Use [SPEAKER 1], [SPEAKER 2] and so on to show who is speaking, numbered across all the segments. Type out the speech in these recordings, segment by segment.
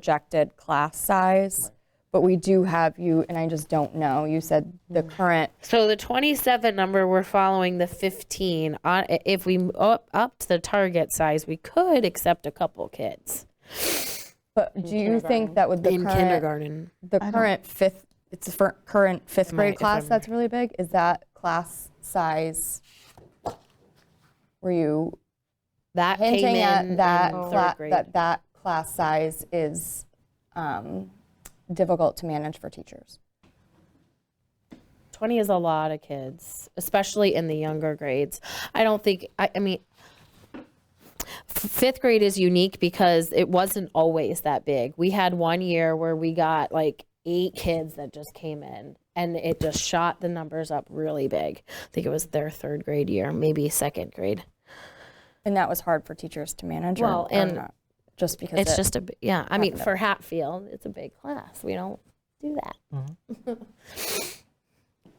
[SPEAKER 1] projected class size, but we do have you, and I just don't know, you said the
[SPEAKER 2] Mm.
[SPEAKER 1] current,
[SPEAKER 2] So the 27 number, we're following the 15. On if we m- up upped the target size, we could accept a couple kids
[SPEAKER 1] but do you think that with the
[SPEAKER 2] in
[SPEAKER 1] current,
[SPEAKER 2] kindergarten.
[SPEAKER 1] the current fifth, it's for current fifth
[SPEAKER 2] Might,
[SPEAKER 1] grade
[SPEAKER 2] if
[SPEAKER 1] class
[SPEAKER 2] I'm-
[SPEAKER 1] that's really big? Is that class size? Were you
[SPEAKER 2] That came
[SPEAKER 1] hinting
[SPEAKER 2] in
[SPEAKER 1] at that,
[SPEAKER 2] in
[SPEAKER 1] cla-
[SPEAKER 2] third grade.
[SPEAKER 1] that that class size is um, difficult to manage for teachers?
[SPEAKER 2] 20 is a lot of kids, especially in the younger grades. I don't think, I, I mean, f- fifth grade is unique because it wasn't always that big. We had one year where we got like eight kids that just came in and it just shot the numbers up really big. I think it was their third grade year, maybe second grade.
[SPEAKER 1] And that was hard for teachers to manage or-
[SPEAKER 2] Well,
[SPEAKER 1] or
[SPEAKER 2] and
[SPEAKER 1] not? Just because
[SPEAKER 2] It's
[SPEAKER 1] it-
[SPEAKER 2] just a, b- yeah, I mean,
[SPEAKER 1] happened.
[SPEAKER 2] for Hatfield, it's a big class. We don't do that.
[SPEAKER 3] Mm-hmm.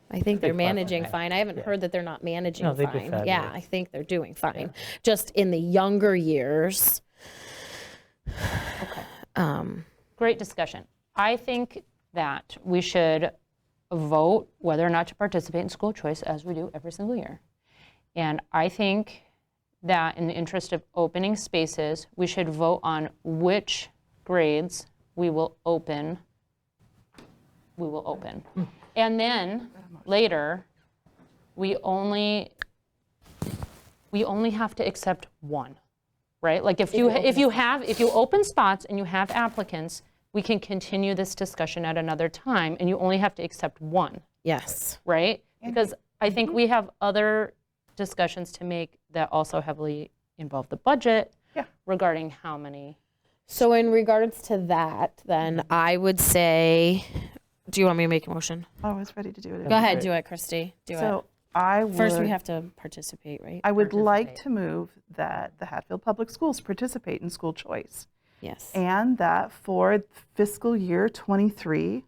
[SPEAKER 2] I think they're
[SPEAKER 3] big class,
[SPEAKER 2] managing
[SPEAKER 3] right?
[SPEAKER 2] fine. I haven't heard that they're not managing
[SPEAKER 3] No, they do
[SPEAKER 2] fine. Yeah,
[SPEAKER 3] fabulous.
[SPEAKER 2] I think they're doing fine. Just in the younger years. Um,
[SPEAKER 4] great discussion. I think that we should vote whether or not to participate in school choice as we do every single year. And I think that in the interest of opening spaces, we should vote on which grades we will open. We will open. And then later, we only, we only have to accept one right? Like if you, if you have, if you open spots and you have applicants, we can continue this discussion at another time, and you only have to accept one,
[SPEAKER 2] Yes.
[SPEAKER 4] right? Because I
[SPEAKER 5] Mhm.
[SPEAKER 4] think we have other discussions to make that also heavily involve the budget regarding how many.
[SPEAKER 2] So in regards to that, then I would say, do you want me to make a motion?
[SPEAKER 5] I was ready to do it.
[SPEAKER 2] Go ahead, do it, Christy. Do it.
[SPEAKER 5] So I
[SPEAKER 2] First, we
[SPEAKER 5] would,
[SPEAKER 2] have to participate, right?
[SPEAKER 5] I would like to move that the Hatfield Public Schools participate in school choice.
[SPEAKER 2] Yes.
[SPEAKER 5] And that for fiscal year '23,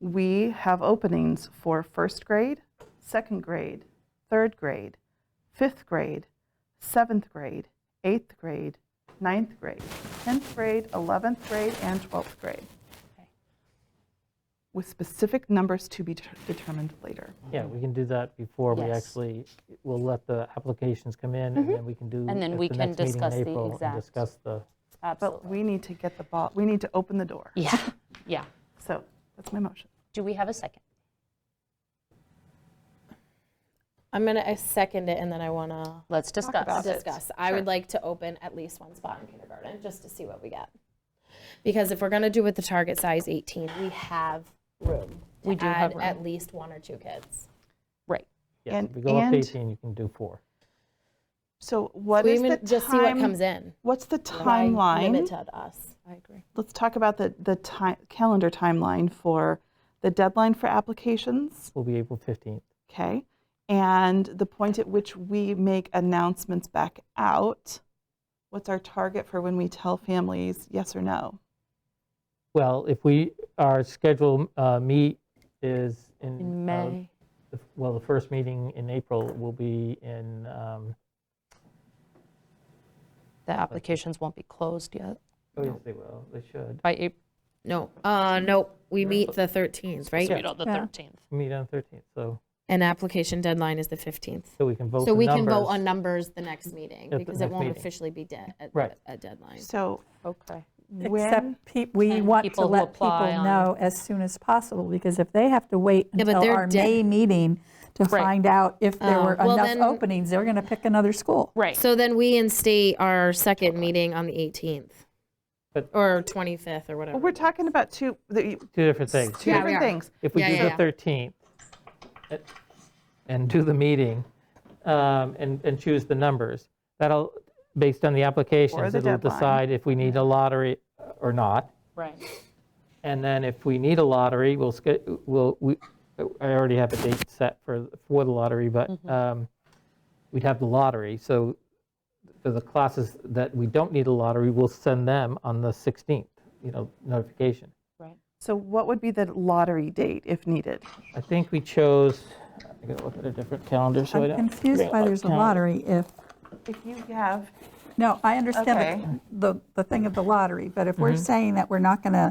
[SPEAKER 5] we have openings for first grade, second grade, third grade, fifth grade, seventh grade, eighth grade, ninth grade, 10th grade, 11th grade, and 12th grade. With specific numbers to be det- determined later.
[SPEAKER 3] Yeah, we can do that before we
[SPEAKER 4] Yes. Mm-hmm.
[SPEAKER 3] actually, we'll let the applications come in, and then we can do.
[SPEAKER 4] And then
[SPEAKER 3] at
[SPEAKER 4] we
[SPEAKER 3] the
[SPEAKER 4] can
[SPEAKER 3] next meeting in
[SPEAKER 4] discuss the
[SPEAKER 3] April and
[SPEAKER 4] exact-
[SPEAKER 3] Discuss the,
[SPEAKER 5] But
[SPEAKER 4] Absolutely.
[SPEAKER 5] we need to get the ball, we need to open the door.
[SPEAKER 4] Yeah, yeah.
[SPEAKER 5] So that's my motion.
[SPEAKER 4] Do we have a second?
[SPEAKER 2] I'm going to second it and then I want to.
[SPEAKER 4] Let's discuss.
[SPEAKER 5] about it.
[SPEAKER 2] discuss. I would like to open at least one spot in kindergarten, just to see what we get. Because if we're gonna do with the target size 18, we have room
[SPEAKER 4] We
[SPEAKER 2] to
[SPEAKER 4] do have
[SPEAKER 2] add
[SPEAKER 4] room.
[SPEAKER 2] at least one or two kids.
[SPEAKER 4] Right.
[SPEAKER 3] yeah,
[SPEAKER 5] And-
[SPEAKER 3] if we go up to
[SPEAKER 5] and-
[SPEAKER 3] 18, you can do four.
[SPEAKER 5] So what
[SPEAKER 2] We
[SPEAKER 5] is the
[SPEAKER 2] even Just see what comes
[SPEAKER 5] time,
[SPEAKER 2] in.
[SPEAKER 5] what's the
[SPEAKER 2] Why Limit
[SPEAKER 5] timeline?
[SPEAKER 2] to us. I agree.
[SPEAKER 5] Let's talk about the, the time, calendar timeline for the deadline for applications,
[SPEAKER 3] Will be April 15th.
[SPEAKER 5] okay? And the point at which we make announcements back out. What's our target for when we tell families yes or no?
[SPEAKER 3] Well, if we, our scheduled uh, meet is in.
[SPEAKER 4] In
[SPEAKER 3] uh,
[SPEAKER 4] May.
[SPEAKER 3] the- Well, the first meeting in April will be in, um,
[SPEAKER 4] The applications won't be closed yet
[SPEAKER 3] oh, yes, they will, they should,
[SPEAKER 4] by April,
[SPEAKER 2] No, uh, no, we meet the 13th,
[SPEAKER 4] you
[SPEAKER 2] right?
[SPEAKER 4] know, the 13th.
[SPEAKER 3] meet on 13th, so,
[SPEAKER 2] And application deadline is the 15th.
[SPEAKER 3] so we can vote
[SPEAKER 2] So
[SPEAKER 3] the
[SPEAKER 2] we can vote
[SPEAKER 3] numbers.
[SPEAKER 2] on numbers the next meeting,
[SPEAKER 3] At the
[SPEAKER 2] because it
[SPEAKER 3] next
[SPEAKER 2] won't
[SPEAKER 3] meeting.
[SPEAKER 2] officially be de- a-
[SPEAKER 3] Right.
[SPEAKER 2] a deadline.
[SPEAKER 5] So
[SPEAKER 4] Okay.
[SPEAKER 5] when,
[SPEAKER 6] Except pe- we
[SPEAKER 4] And
[SPEAKER 6] want
[SPEAKER 4] people
[SPEAKER 6] to
[SPEAKER 4] who
[SPEAKER 6] let people
[SPEAKER 4] apply on-
[SPEAKER 6] know as soon as possible, because if they have to wait
[SPEAKER 2] Yeah, but
[SPEAKER 6] until
[SPEAKER 2] they're
[SPEAKER 6] our
[SPEAKER 2] dead-
[SPEAKER 6] May meeting to
[SPEAKER 4] Right.
[SPEAKER 6] find out if there
[SPEAKER 2] Oh,
[SPEAKER 6] were
[SPEAKER 2] well,
[SPEAKER 6] enough
[SPEAKER 2] then-
[SPEAKER 6] openings, they're going to pick another school.
[SPEAKER 4] Right.
[SPEAKER 2] So then we instate our second meeting on the 18th,
[SPEAKER 3] But-
[SPEAKER 2] or 25th, or whatever.
[SPEAKER 5] well, we're talking about two, the-
[SPEAKER 3] Two different things.
[SPEAKER 5] two
[SPEAKER 2] Yeah, we
[SPEAKER 5] different
[SPEAKER 2] are.
[SPEAKER 5] things.
[SPEAKER 3] if we
[SPEAKER 2] Yeah,
[SPEAKER 3] do
[SPEAKER 2] yeah,
[SPEAKER 3] the
[SPEAKER 2] yeah.
[SPEAKER 3] 13th uh, and do the meeting um, and, and choose the numbers, that'll, based on the applications,
[SPEAKER 5] the
[SPEAKER 3] it'll
[SPEAKER 5] deadline.
[SPEAKER 3] decide if we need a lottery or not.
[SPEAKER 4] Right.
[SPEAKER 3] And then if we need a lottery, we'll, sch- we'll, we, I already have a date set for, for the lottery, but
[SPEAKER 2] Mm-hmm.
[SPEAKER 3] um, we'd have the lottery. So for the classes that we don't need a lottery, we'll send them on the 16th, you know, notification.
[SPEAKER 5] So what would be the lottery date if needed?
[SPEAKER 3] I think we chose, I gotta look at a different calendar so I
[SPEAKER 6] I'm
[SPEAKER 3] don't.
[SPEAKER 6] confused why there's a
[SPEAKER 3] Calendar.
[SPEAKER 6] lottery if
[SPEAKER 5] If you have
[SPEAKER 3] Mm-hmm.
[SPEAKER 6] No, I understand the- the, the thing of the lottery, but if we're saying that we're not going to